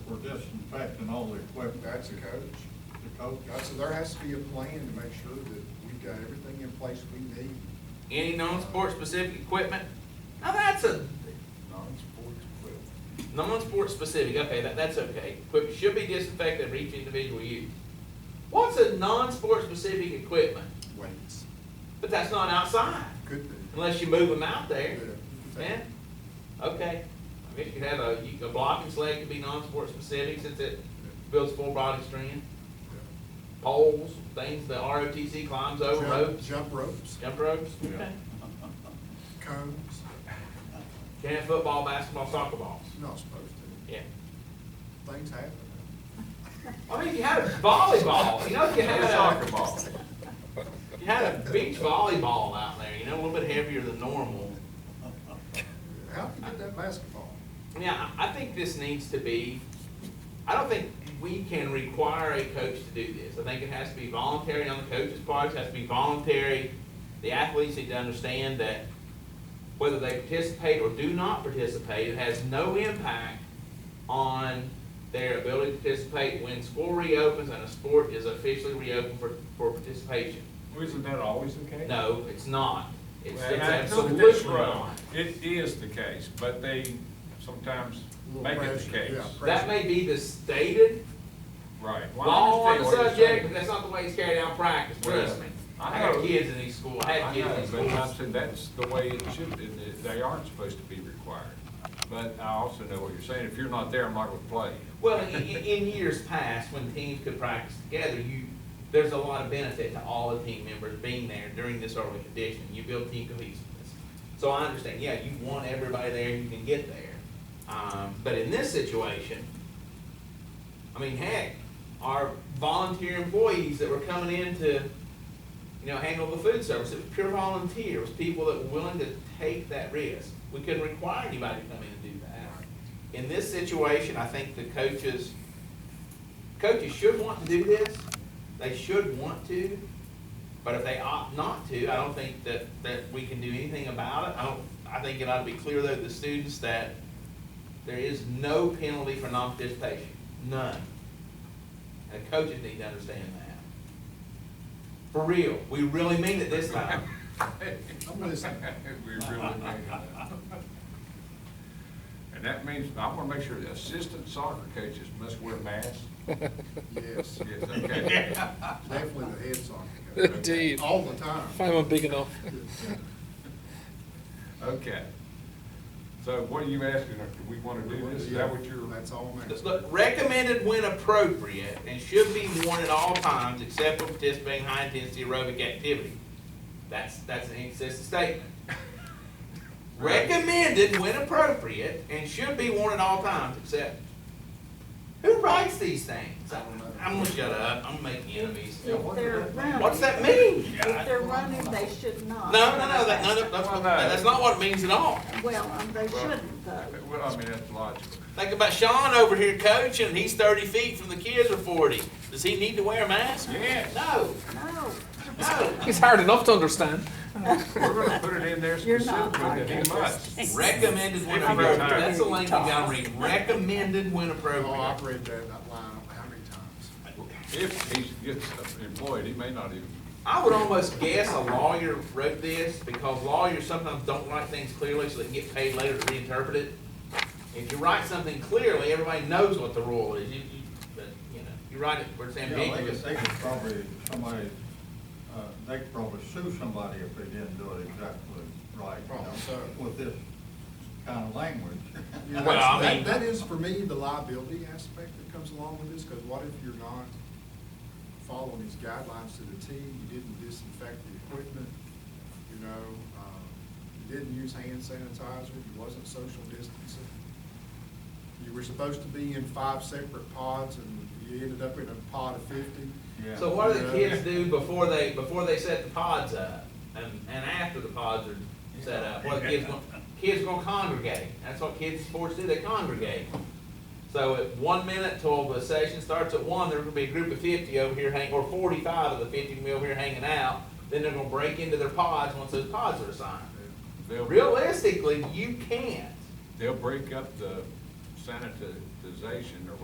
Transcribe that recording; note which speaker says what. Speaker 1: disinfecting all the equipment.
Speaker 2: That's a coach.
Speaker 1: The coach?
Speaker 2: God, So there has to be a plan to make sure that we've got everything in place we need,
Speaker 3: Any non-sport specific equipment? Now that's a,
Speaker 2: non-sports equipment.
Speaker 3: non-sport specific, okay, that, that's okay. Equipment should be disinfected for each individual use. What's a non-sport specific equipment?
Speaker 2: Weights,
Speaker 3: But that's not outside,
Speaker 2: could be.
Speaker 3: unless you move them out there.
Speaker 2: Yeah.
Speaker 3: Yeah, okay. I guess you could have a, you- a block and sled could be non-sport specific since it builds full body strength. Poles, things that ROTC climbs over,
Speaker 2: Jump-
Speaker 3: ropes,
Speaker 2: Jump ropes,
Speaker 3: jump ropes.
Speaker 1: Yeah.
Speaker 3: Okay.
Speaker 2: cones,
Speaker 3: Can have football, basketball, soccer balls.
Speaker 2: you're not supposed to,
Speaker 3: Yeah.
Speaker 2: things happen.
Speaker 3: I mean, if you had a volleyball, you know, if you had
Speaker 4: Soccer
Speaker 3: a,
Speaker 4: ball.
Speaker 3: you had a beach volleyball out there, you know, a little bit heavier than normal.
Speaker 2: How can you get that basketball?
Speaker 3: Yeah, I I think this needs to be, I don't think we can require a coach to do this. I think it has to be voluntary on the coach's part, it has to be voluntary. The athletes need to understand that whether they participate or do not participate, it has no impact on their ability to participate when school reopens and a sport is officially reopened for, for participation.
Speaker 4: Well, Isn't that always the case?
Speaker 3: No, it's not. It's it's
Speaker 4: Well, now, look at
Speaker 3: absolutely
Speaker 4: this road.
Speaker 3: not.
Speaker 4: It is the case, but they sometimes
Speaker 2: Little
Speaker 4: make it the
Speaker 2: pressure,
Speaker 4: case.
Speaker 2: yeah.
Speaker 3: That may be the stated
Speaker 4: Right. Well, I
Speaker 3: Law Oh, on the
Speaker 4: understand what you're
Speaker 3: subject,
Speaker 4: saying.
Speaker 3: but that's not the way it's carried out in practice, trust me. I
Speaker 4: I
Speaker 3: had
Speaker 4: know.
Speaker 3: kids in these schools, I had
Speaker 4: I know,
Speaker 3: kids in
Speaker 4: but
Speaker 3: these
Speaker 4: I
Speaker 3: schools.
Speaker 4: said that's the way it should, be. They- they aren't supposed to be required. But I also know what you're saying, if you're not there, I'm not gonna play.
Speaker 3: Well, in, in in years past, when teams could practice together, you, there's a lot of benefit to all the team members being there during this early conditioning. You build team cohesiveness. So I understand, yeah, you want everybody there, you can get there. Um, but in this situation, I mean, heck, our volunteer employees that were coming in to, you know, handle the food service, it was pure volunteer, it was people that were willing to take that risk. We couldn't require anybody to come in and do that. In this situation, I think the coaches, coaches should want to do this, they should want to, but if they opt not to, I don't think that, that we can do anything about it. I don't, I think it ought to be clear though to the students that there is no penalty for non-participation, none. And the coaches need to understand that. For real, we really mean it this time.
Speaker 2: I'm listening.
Speaker 4: We really made it. And that means, I wanna make sure the assistant soccer coaches must wear masks.
Speaker 2: Yes,
Speaker 4: Yes, okay.
Speaker 2: definitely the head soccer. coach.
Speaker 5: Indeed.
Speaker 2: All the time.
Speaker 5: If I'm big enough.
Speaker 4: Okay. So what are you asking, do we wanna do this, is that what you're?
Speaker 2: That's all, man.
Speaker 3: Just look, recommended when appropriate and should be worn at all times except when participating in high-intensity aerobic activity. That's, that's an inconsistent statement. Recommended when appropriate and should be worn at all times except, who writes these things? I'm gonna shut up, I'm making enemies.
Speaker 6: If they're running.
Speaker 3: What's that mean?
Speaker 6: If they're running, they should
Speaker 3: No,
Speaker 6: not.
Speaker 3: no, no, that, no, that's, what- that's not what it means at all.
Speaker 6: Well, um, they shouldn't though.
Speaker 4: Well, I mean, that's logical.
Speaker 3: Think about Sean over here coaching, and he's thirty feet from the kids or forty. Does he need to wear a mask?
Speaker 4: Yeah.
Speaker 3: No,
Speaker 6: No,
Speaker 3: no.
Speaker 5: It's hard enough to understand.
Speaker 4: We're gonna put it in there
Speaker 6: You're not
Speaker 4: specifically that he
Speaker 6: talking.
Speaker 4: must.
Speaker 3: Recommended when
Speaker 4: Every
Speaker 3: appropriate.
Speaker 4: time.
Speaker 3: That's the language I'm reading. Recommended when
Speaker 2: Oh,
Speaker 3: appropriate.
Speaker 2: I've read that, that line, how many times?
Speaker 4: If he gets employed, he may not even,
Speaker 3: I would almost guess a lawyer wrote this because lawyers sometimes don't write things clearly so they can get paid later to reinterpret it. If you write something clearly, everybody knows what the rule is. You, you, but, you know, you write it where it's
Speaker 1: Yeah, they
Speaker 3: ambiguous.
Speaker 1: could, they could probably, somebody, uh, they could probably sue somebody if they didn't do it exactly right. you
Speaker 2: Probably
Speaker 1: know,
Speaker 2: so.
Speaker 1: With this kind of language.
Speaker 2: Yeah,
Speaker 3: Well, I
Speaker 2: that's-
Speaker 3: mean-
Speaker 2: That that is, for me, the liability aspect that comes along with this, because what if you're not following these guidelines to the T? You didn't disinfect the equipment, you know, um, you didn't use hand sanitizer, you wasn't social distancing. You were supposed to be in five separate pods, and you ended up in a pod of fifty.
Speaker 1: Yeah.
Speaker 3: So what do the kids do before they, before they set the pods up and, and after the pods are set up? What the kids gonna, kids gonna congregate. That's what kids sports do, they congregate. So at one minute till the session starts at one, there's gonna be a group of fifty over here hang, or forty-five of the fifty gonna be over here hanging out. Then they're gonna break into their pods once those pods are assigned.
Speaker 4: they'll,
Speaker 3: Realistically, you can't.
Speaker 4: they'll break up the sanitization or